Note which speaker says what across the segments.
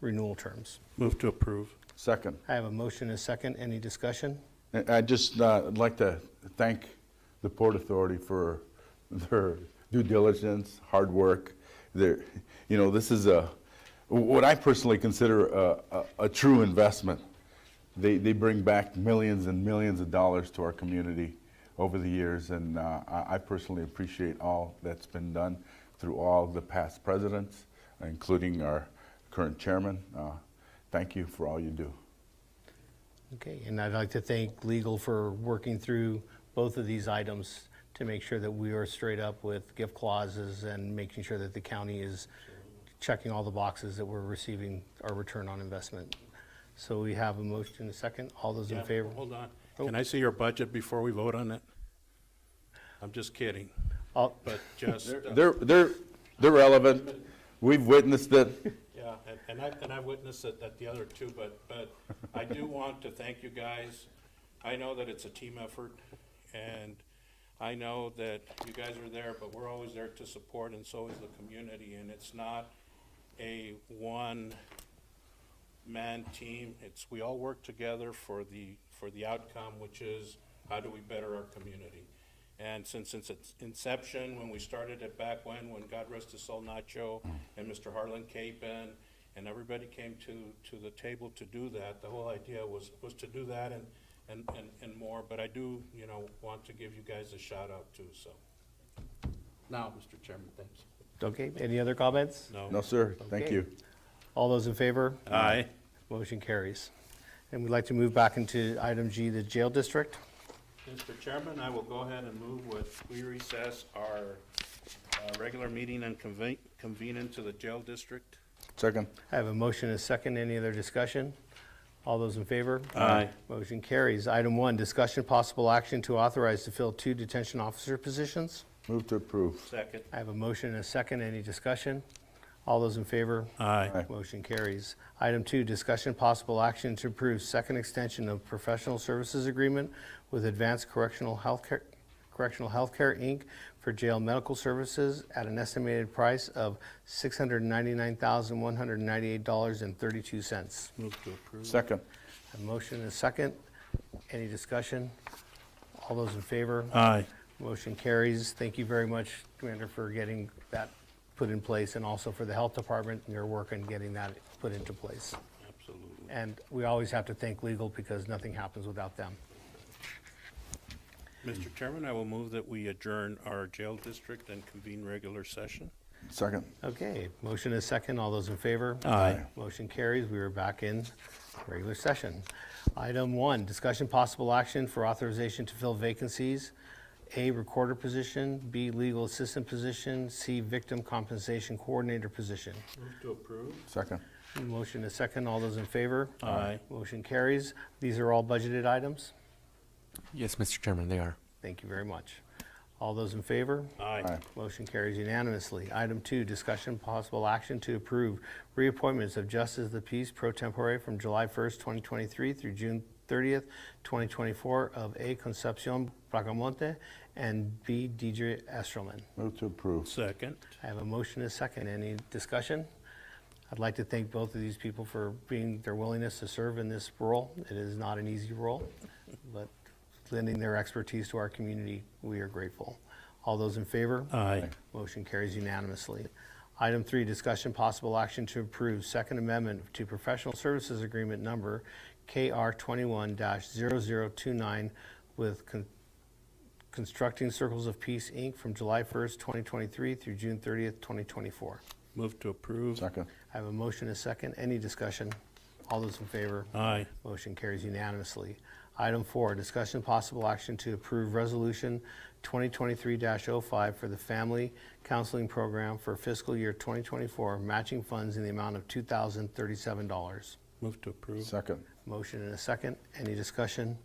Speaker 1: renewal terms.
Speaker 2: Move to approve.
Speaker 3: Second.
Speaker 1: I have a motion and a second. Any discussion?
Speaker 3: I- I'd just uh, like to thank the Port Authority for their due diligence, hard work. Their, you know, this is a, what I personally consider a, a, a true investment. They, they bring back millions and millions of dollars to our community over the years, and uh, I I personally appreciate all that's been done through all the past presidents, including our current chairman. Uh, Thank you for all you do.
Speaker 1: Okay, and I'd like to thank legal for working through both of these items to make sure that we are straight up with gift clauses and making sure that the county is checking all the boxes that we're receiving our return on investment. So we have a motion and a second. All those in favor?
Speaker 2: Hold on. Can I see your budget before we vote on it? I'm just kidding,
Speaker 1: All-
Speaker 2: but just, uh,
Speaker 3: They're, they're, they're relevant. We've witnessed it.
Speaker 2: yeah, and- and I, and I witnessed it at the other two, but, but I do want to thank you guys. I know that it's a team effort, and I know that you guys are there, but we're always there to support, and so is the community, and it's not a one, man team. It's, we all work together for the, for the outcome, which is how do we better our community? And since, since its inception, when we started it back when, when God rest his soul Nacho and Mr. Harlan Capen and everybody came to, to the table to do that, the whole idea was, was to do that and, and, and, and more. But I do, you know, want to give you guys a shout out too, so. Now, Mr. Chairman, thanks.
Speaker 1: Okay, any other comments?
Speaker 3: No, sir. Thank
Speaker 1: Okay.
Speaker 3: you.
Speaker 1: All those in favor?
Speaker 2: Aye.
Speaker 1: Motion carries. And we'd like to move back into item G, the jail district.
Speaker 2: Mr. Chairman, I will go ahead and move with, we recess our uh, regular meeting and convene, convene into the jail district.
Speaker 3: Second.
Speaker 1: I have a motion and a second. Any other discussion? All those in favor?
Speaker 2: Aye.
Speaker 1: Motion carries. Item one, discussion possible action to authorize to fill two detention officer positions.
Speaker 3: Move to approve.
Speaker 2: Second.
Speaker 1: I have a motion and a second. Any discussion? All those in favor?
Speaker 2: Aye.
Speaker 3: Aye.
Speaker 1: Motion carries. Item two, discussion possible action to approve second extension of professional services agreement with Advanced Correctional Healthcare, Correctional Healthcare, Inc. for jail medical services at an estimated price of $699,198.32.
Speaker 2: Move to approve.
Speaker 3: Second.
Speaker 1: A motion and a second. Any discussion? All those in favor?
Speaker 2: Aye.
Speaker 1: Motion carries. Thank you very much, Commander, for getting that put in place, and also for the Health Department and your work in getting that put into place.
Speaker 2: Absolutely.
Speaker 1: And we always have to thank legal because nothing happens without them.
Speaker 2: Mr. Chairman, I will move that we adjourn our jail district and convene regular session.
Speaker 3: Second.
Speaker 1: Okay, motion is second. All those in favor?
Speaker 2: Aye.
Speaker 1: Motion carries. We are back in regular session. Item one, discussion possible action for authorization to fill vacancies. A, recorder position, B, legal assistant position, C, victim compensation coordinator position.
Speaker 2: Move to approve.
Speaker 3: Second.
Speaker 1: Motion is second. All those in favor?
Speaker 2: Aye.
Speaker 1: Motion carries. These are all budgeted items.
Speaker 4: Yes, Mr. Chairman, they are.
Speaker 1: Thank you very much. All those in favor?
Speaker 2: Aye.
Speaker 1: Motion carries unanimously. Item two, discussion possible action to approve reappointments of Justice of the Peace pro tempore from July 1st, 2023 through June 30th, 2024 of A. Concepcion Bracamonte and B. Deidre Estrelman.
Speaker 3: Move to approve.
Speaker 2: Second.
Speaker 1: I have a motion and a second. Any discussion? I'd like to thank both of these people for being, their willingness to serve in this role. It is not an easy role, but lending their expertise to our community, we are grateful. All those in favor?
Speaker 2: Aye.
Speaker 1: Motion carries unanimously. Item three, discussion possible action to approve Second Amendment to Professional Services Agreement Number KR 21-0029 with Con- Constructing Circles of Peace, Inc. from July 1st, 2023 through June 30th, 2024.
Speaker 2: Move to approve.
Speaker 3: Second.
Speaker 1: I have a motion and a second. Any discussion? All those in favor?
Speaker 2: Aye.
Speaker 1: Motion carries unanimously. Item four, discussion possible action to approve Resolution 2023-05 for the Family Counseling Program for fiscal year 2024, matching funds in the amount of $2,037.
Speaker 2: Move to approve.
Speaker 3: Second.
Speaker 1: Motion and a second. Any discussion?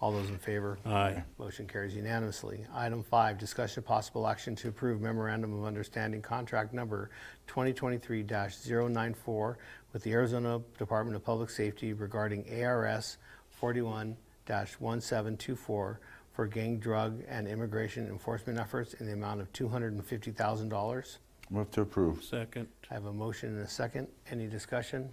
Speaker 1: All those in favor?
Speaker 2: Aye.
Speaker 1: Motion carries unanimously. Item five, discussion of possible action to approve memorandum of understanding contract number 2023-094 with the Arizona Department of Public Safety regarding ARS 41-1724 for gang, drug, and immigration enforcement efforts in the amount of $250,000.
Speaker 3: Move to approve.
Speaker 2: Second.
Speaker 1: I have a motion and a second. Any discussion?